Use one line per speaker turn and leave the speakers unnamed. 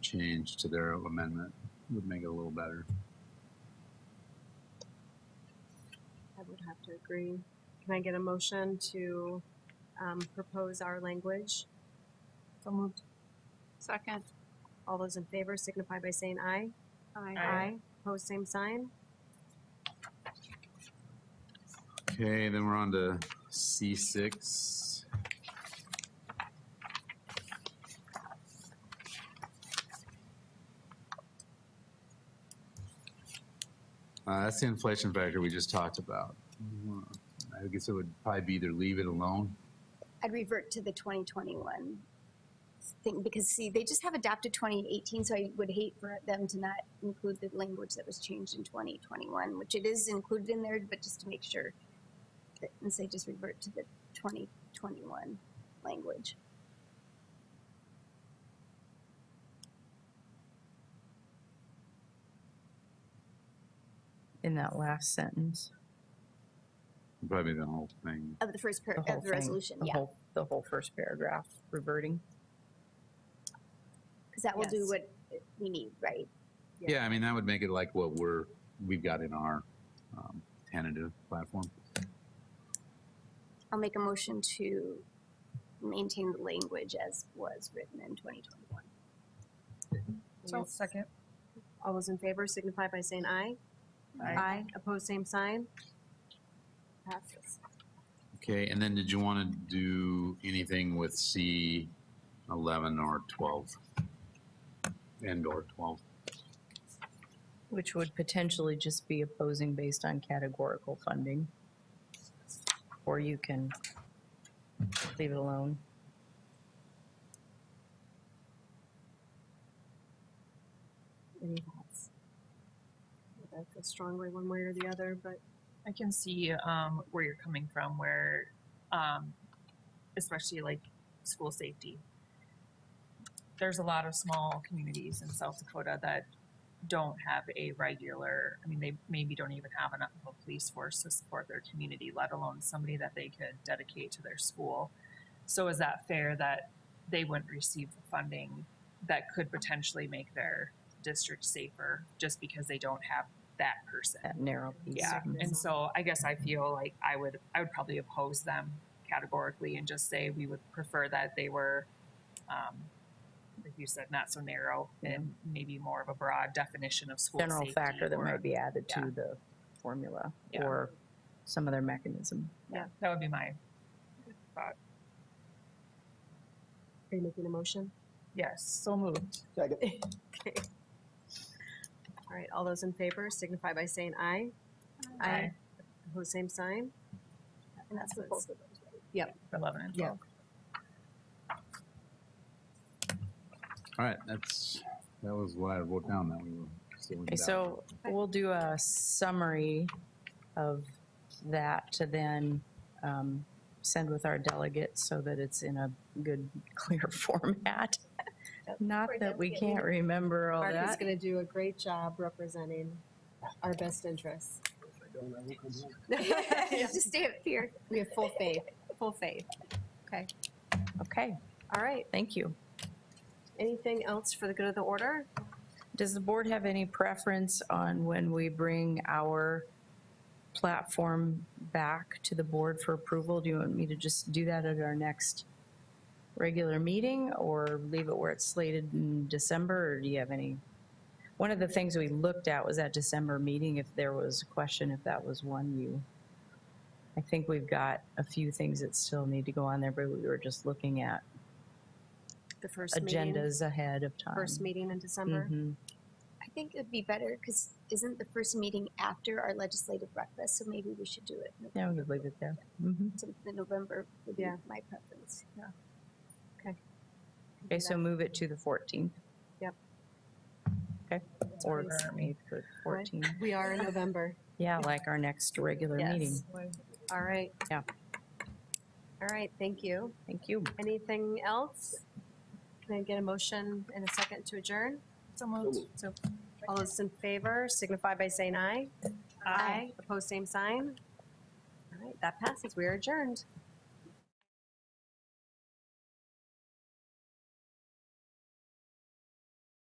change to their amendment would make it a little better.
I would have to agree. Can I get a motion to um, propose our language? So moved.
Second.
All those in favor signify by saying aye.
Aye.
Opposed, same sign.
Okay, then we're on to C six. Uh, that's the inflation factor we just talked about. I guess it would probably be either leave it alone.
I'd revert to the 2021 thing because see, they just have adopted 2018, so I would hate for them to not include the language that was changed in 2021, which it is included in there, but just to make sure that, and say just revert to the 2021 language.
In that last sentence,
Probably the whole thing.
Of the first part
the whole
of the
thing,
resolution,
the
yeah,
whole- The whole first paragraph reverting.
because that will do
Yes.
what we need, right?
Yeah.
Yeah, I mean, that would make it like what we're, we've got in our um, tentative platform.
I'll make a motion to maintain the language as was written in 2021.
So second. All those in favor signify by saying aye.
Aye.
Opposed, same sign. Passes.
Okay, and then did you want to do anything with C eleven or twelve? And or twelve?
Which would potentially just be opposing based on categorical funding. Or you can leave it alone.
Any thoughts? I feel strongly one way or the other, but
I can see um, where you're coming from, where, um, especially like school safety. There's a lot of small communities in South Dakota that don't have a regular, I mean, they maybe don't even have enough of a police force to support their community, let alone somebody that they could dedicate to their school. So is that fair that they wouldn't receive the funding that could potentially make their district safer just because they don't have that person?
That narrow piece.
Yeah, and so I guess I feel like I would, I would probably oppose them categorically and just say we would prefer that they were, um, like you said, not so narrow and maybe more of a broad definition of school
General
safety
factor that
or-
might be added
yeah.
to the formula
Yeah.
or some other mechanism.
Yeah, that would be my,
are you making a motion?
yes, so moved.
Okay. All right, all those in favor signify by saying aye.
Aye.
Opposed, same sign.
And that's what both of those, right?
Eleven and
Yeah.
twelve.
All right, that's, that was what I wrote down that we were. still in
Okay,
doubt.
so we'll do a summary of that to then um, send with our delegates so that it's in a good, clear format. Not
Or
that we
delegate
can't remember all
Mark is
that.
going to do a great job representing our best interests.
Just stay up here.
We have full faith, full faith.
Okay,
All right,
thank you.
anything else for the good of the order?
Does the board have any preference on when we bring our platform back to the board for approval? Do you want me to just do that at our next regular meeting or leave it where it's slated in December? Or do you have any? One of the things we looked at was that December meeting, if there was a question, if that was one you. I think we've got a few things that still need to go on there, but we were just looking at
The first meeting,
agendas ahead of time.
first meeting in December.
Mhm.
I think it'd be better because isn't the first meeting after our legislative breakfast? So maybe we should do it in
Yeah, we could leave it there. Mhm.
the November would be
Yeah.
my preference. Yeah.
Mm-hmm. Okay, so move it to the 14th.
Yep.
Okay, or
Please.
maybe the 14th.
We are in November.
Yeah, like our next regular meeting.
Yes. All right.
Yeah.
All right, thank you.
Thank you.
Anything else? Can I get a motion and a second to adjourn?
So moved. So.
All those in favor signify by saying aye. Opposed, same sign. All right, that passes. We are adjourned.